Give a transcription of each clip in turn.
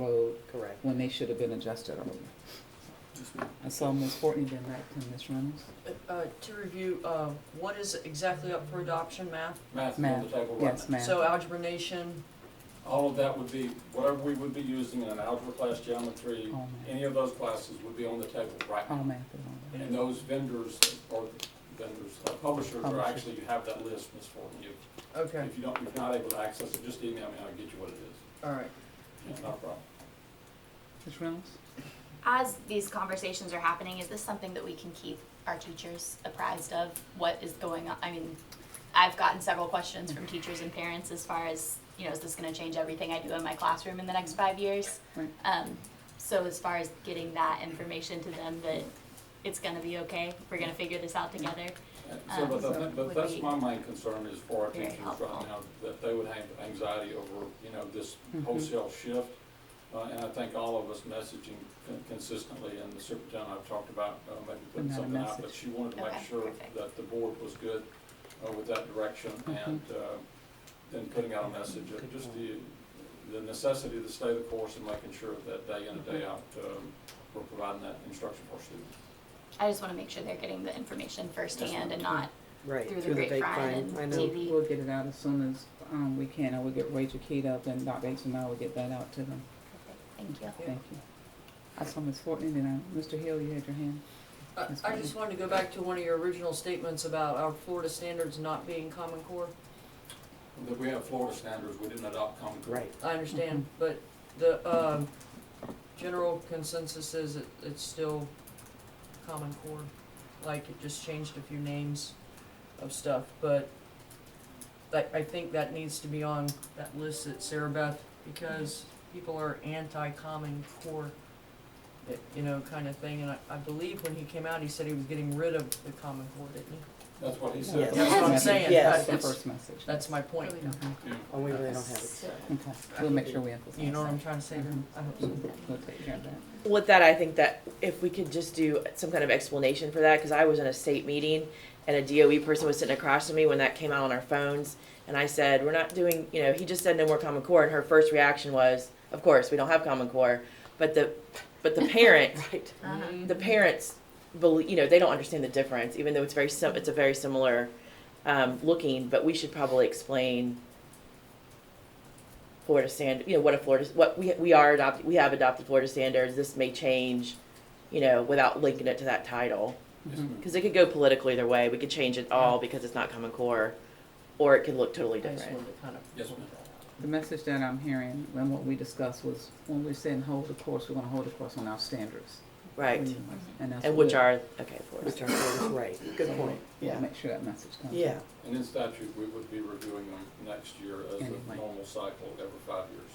road Correct. when they should have been adjusted earlier. I saw Ms. Fortney did that, and Ms. Reynolds. Uh, To review, uh, what is exactly up for adoption, math? Math Math, on the table, right? Yes, ma'am. So uh, algebra nation, All of that would be, whatever we would be using in an algebra class, geometry, All math, any of those classes would be on the table right now. all math is on there. And those vendors, or vendors, uh, publishers are Publishers. actually, you have that list, Ms. Fortin. If, okay, if you don't, if you're not able to access it, just email me, I'll get you what it is. all right. Yeah, No problem. Ms. Reynolds? As these conversations are happening, is this something that we can keep our teachers apprised of? What is going on? I mean, I've gotten several questions from teachers and parents as far as, you know, is this gonna change everything I do in my classroom in the next five years? Right. Um, so as far as getting that information to them that it's gonna be okay, we're gonna figure this out together. And So, but Um, that, would but that's be my main concern is for our very teachers right helpful. now, that they would have anxiety over, you know, this Hmm. Mhm. wholesale shift. Uh, and I think all of us messaging con- consistently, and the superintendent I've talked about, uh, maybe putting Not a something out, message. but she wanted to make Okay, sure perfect. that the board was good, uh, with that direction Mm-hmm. and, uh, then putting out a message of just the, the necessity to stay the course and making sure that day in and Mm-hmm. day out, um, we're providing that instruction for students. I just wanna make sure they're getting the information firsthand and not Right, through the grapevine I and know. TV. We'll get it out as soon as, um, we can, I will get Rachel keyed up, and Dr. H and I will get that out to them. Thank you. Thank you. I saw Ms. Fortney, and I, Mr. Hill, you had your hand. I- That's I fine. just wanted to go back to one of your original statements about our Florida standards not being Common Core. That we have Florida standards, we didn't adopt common core. Right, I understand, but the um, general consensus is it- it's still Common Core. Like, it just changed a few names of stuff, but I I think that needs to be on that list that Sarah Beth, because people are anti-Common Core, it- you know, kind of thing. And I- I believe when he came out, he said he was getting rid of the Common Core, didn't he? That's what he Yes. said. That's what I'm Yes. saying. Yes. That's the That's- first message. That's my point. Really Mhm. Yeah. oh, we really don't have it. So- Okay, we'll make sure we emphasize. You know what I'm that. trying to say? I hope so. We'll take care of that. with that, I think that if we could just do some kind of explanation for that, because I was in a state meeting and a DOE person was sitting across from me when that came out on our phones, and I said, "We're not doing," you know, he just said no more Common Core, and her first reaction was, "Of course, we don't have Common Core," but the, but the parent, right, Uh-huh. the parents believe, you know, they don't understand the difference, even though it's very sim, it's a very similar um, looking, but we should probably explain Florida standard, you know, what a Florida, what we, we are adopted, we have adopted Florida standards, this may change, you know, without linking it to that title. Mm-hmm. Yes, ma'am. Because it could go political either way, we could change it all because it's not Common Core, or it could look totally I just different. wanted to kind of. Yes, ma'am. The message that I'm hearing and what we discussed was when we're saying hold the course, we're gonna hold the course on our standards. Right, And that's. and which what- are, okay, Florida. Mm. Which are, right, good point, We'll yeah, make sure that message comes. yeah, And in statute, we would be reviewing them next year as a Anyway. normal cycle every five years.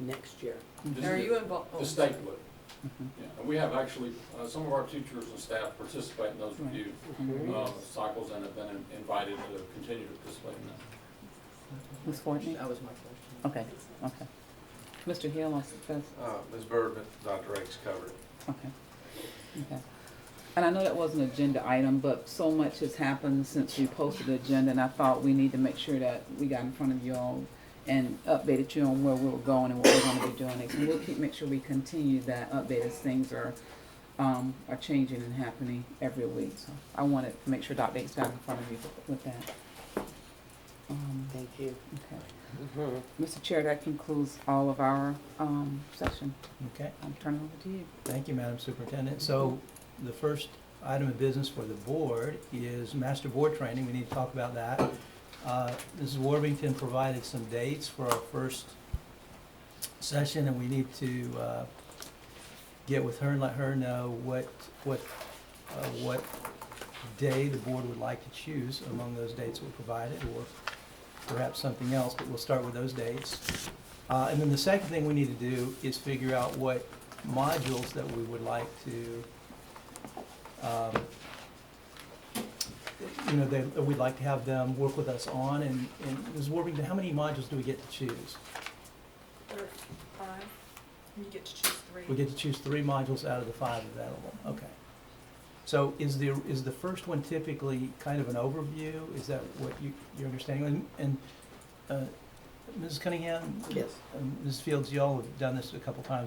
next year. Just Are the- you oh, involved? The state would. Yeah, and we have actually, uh, some of our teachers and staff participate in those Right. review, Mhm. uh, cycles and have been in- invited to continue to participate in that. Ms. Fortney? That was my question. Okay, okay. Mr. Hill, wants to first, Uh, Ms. Byrd, Dr. X covered it. okay. Okay. And I know that was an agenda item, but so much has happened since we posted the agenda and I thought we need to make sure that we got in front of you all and updated you on where we were going and what we're gonna be doing next. And we'll keep, make sure we continue that update as things are, um, are changing and happening every week. So I wanted to make sure Dr. Dates got in front of you with that. Um, Thank you. okay. Mhm. Mr. Chair, that concludes all of our um, session. Okay, I'm turning over to you. thank you, Madam Superintendent. So the first item of business for the board is master board training. We need to talk about that. Uh, Mrs. Worthington provided some dates for our first session, and we need to uh, get with her and let her know what, what, uh, what day the board would like to choose among those dates we provided, or perhaps something else, but we'll start with those dates. Uh, And then the second thing we need to do is figure out what modules that we would like to, um, you know, that we'd like to have them work with us on, and, and Ms. Worthington, how many modules do we get to choose? There are five, and you get to choose three. We get to choose three modules out of the five available, okay. So is the, is the first one typically kind of an overview? Is that what you, your understanding? And, and, uh, Mrs. Cunningham, Yes. um, Mrs. Fields, y'all have done this a couple times